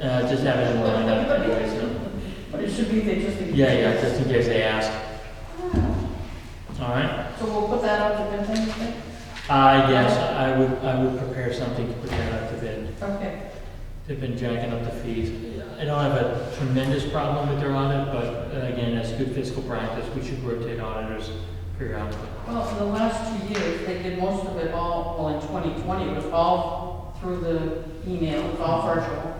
Uh, just have it lined up anyway, so, But it should be there just in. yeah, yeah, just in case they ask. All right, So we'll put that out to bid then, you think? I guess I would, I would prepare something to put that out to bid. Okay, They've been jacking up the fees. I don't have a tremendous problem with their audit, but uh, again, that's good fiscal practice. We should rotate auditors periodically. well, for the last two years, they did most of it all, well, in 2020, it was all through the email, it was all virtual.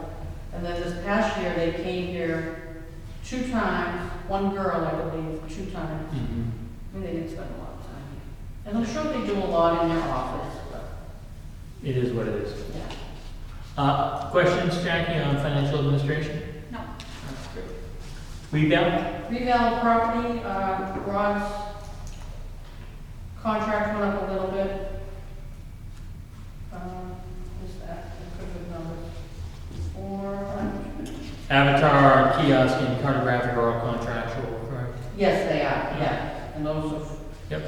And then this past year, they came here two times, one girl, I believe, two times. Mhm. I mean, they didn't spend a lot of time here. And I'm sure they do a lot in their office, but, It is what it is. yeah. Uh, questions, Jackie, on financial administration? No. Rebound? Revale property, uh, Rod's contract went up a little bit. Um, Just that, I could have numbers. Four, five. Avatar, kiosk, and cartographic are all contractual, correct? yes, they are, yeah, and those have Yep.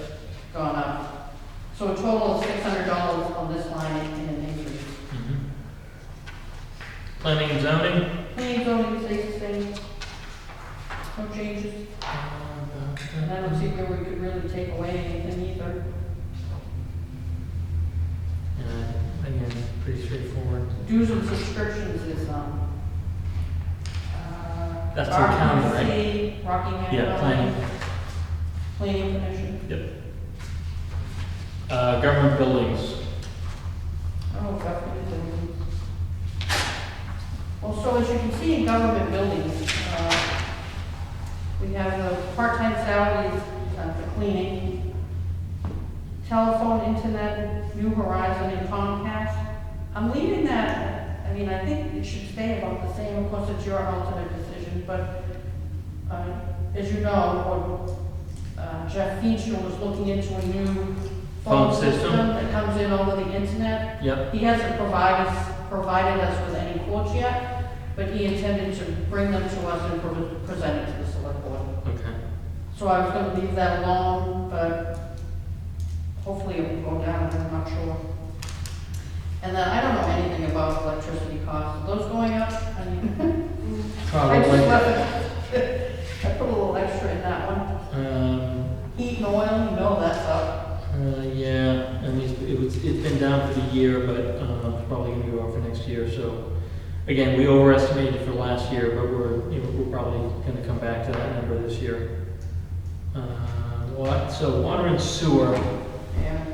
gone up. So a total of six hundred dollars on this line in an increase. Mhm. Planning and zoning? Planning zoning stays the same. No changes, Uh, and I don't see where we could really take away anything either. Uh, Again, pretty straightforward. Dues and subscriptions is, um, uh. That's in town, right? RPC, Rockingham. Yeah, planning. Planning commission. Yep. Uh, government buildings, Oh, government buildings. Well, so as you can see in government buildings, uh, we have the part-time salaries uh, for cleaning, telephone, internet, New Horizon, and Comcast. I'm leaving that, I mean, I think it should stay about the same, of course, it's your ultimate decision, but uh, as you know, what, uh, Jeff Feenstra was looking into a new Phone phone system. system that comes in over the internet. yep. He hasn't provided, us- provided us with any quotes yet, but he intended to bring them to us and pre- present it to the select board. Okay. So I was gonna leave that alone, but hopefully it will go down, I'm not sure. And then I don't know anything about electricity costs, are those going up? I mean, I Probably. just left it. I put a little extra in that one. Um, Heat and oil, you know that's up. uh, yeah, I mean, it was, it's been down for the year, but, uh, it's probably gonna go over next year, so. Again, we overestimated for last year, but we're, you know, we're probably gonna come back to that number this year. Uh, what, so water and sewer, Yeah.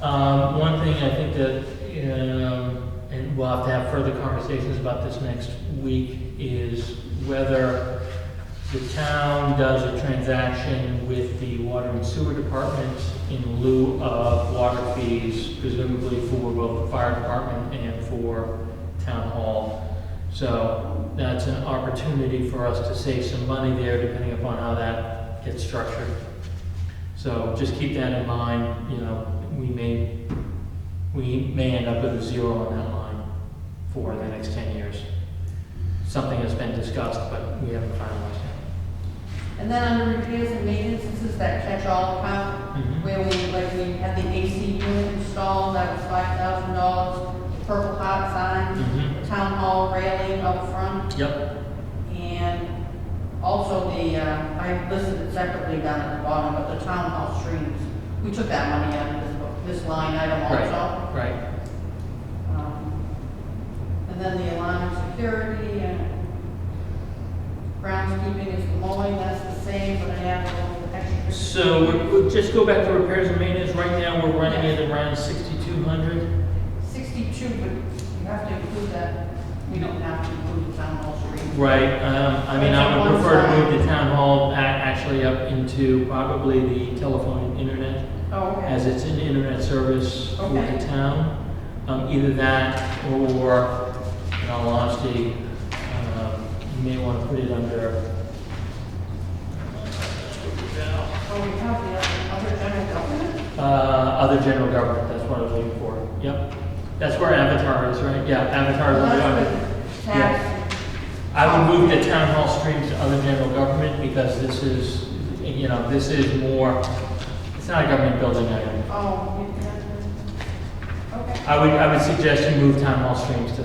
Um, one thing I think that, um, and we'll have to have further conversations about this next week, is whether the town does a transaction with the water and sewer department in lieu of water fees, presumably for both the fire department and for town hall. So that's an opportunity for us to save some money there, depending upon how that gets structured. So just keep that in mind, you know, we may, we may end up with a zero on that line for the next ten years. Something has been discussed, but we haven't finalized And then under repairs and maintenance, this is that catch-all Mhm. account, where we, like, we had the AC unit installed, that was five thousand dollars, purple hot sign, it. town hall railing up front, Yep, and also the, uh, I listed it separately down at the bottom, but the town hall streams. We took that money out of this, book- this line item also. right, right. Um, And then the alarm and security and groundskeeping is the mowing, that's the same, but I have a little extra. So we- we'll just go back to repairs and maintenance. Right now, we're running at around sixty-two hundred. 62, but you have to include that, we don't have to include the town hall street. Right, um, I mean, I It's would on one prefer to side. move the town hall a- actually up into probably the telephone and internet. Oh, as it's an internet service for the Okay. town. Um, Either that, or, in all honesty, um, you may want to put it under, So Oh, we have the other other general government? uh, other general government, that's what I was looking for. Yep, that's where Avatar is, right? Yeah, Avatar is under government. That's the Tax, I would move the town hall streams to other general government, because this is, you know, this is more, it's not a government building item. oh, you can- okay. I would, I would suggest you move town hall streams to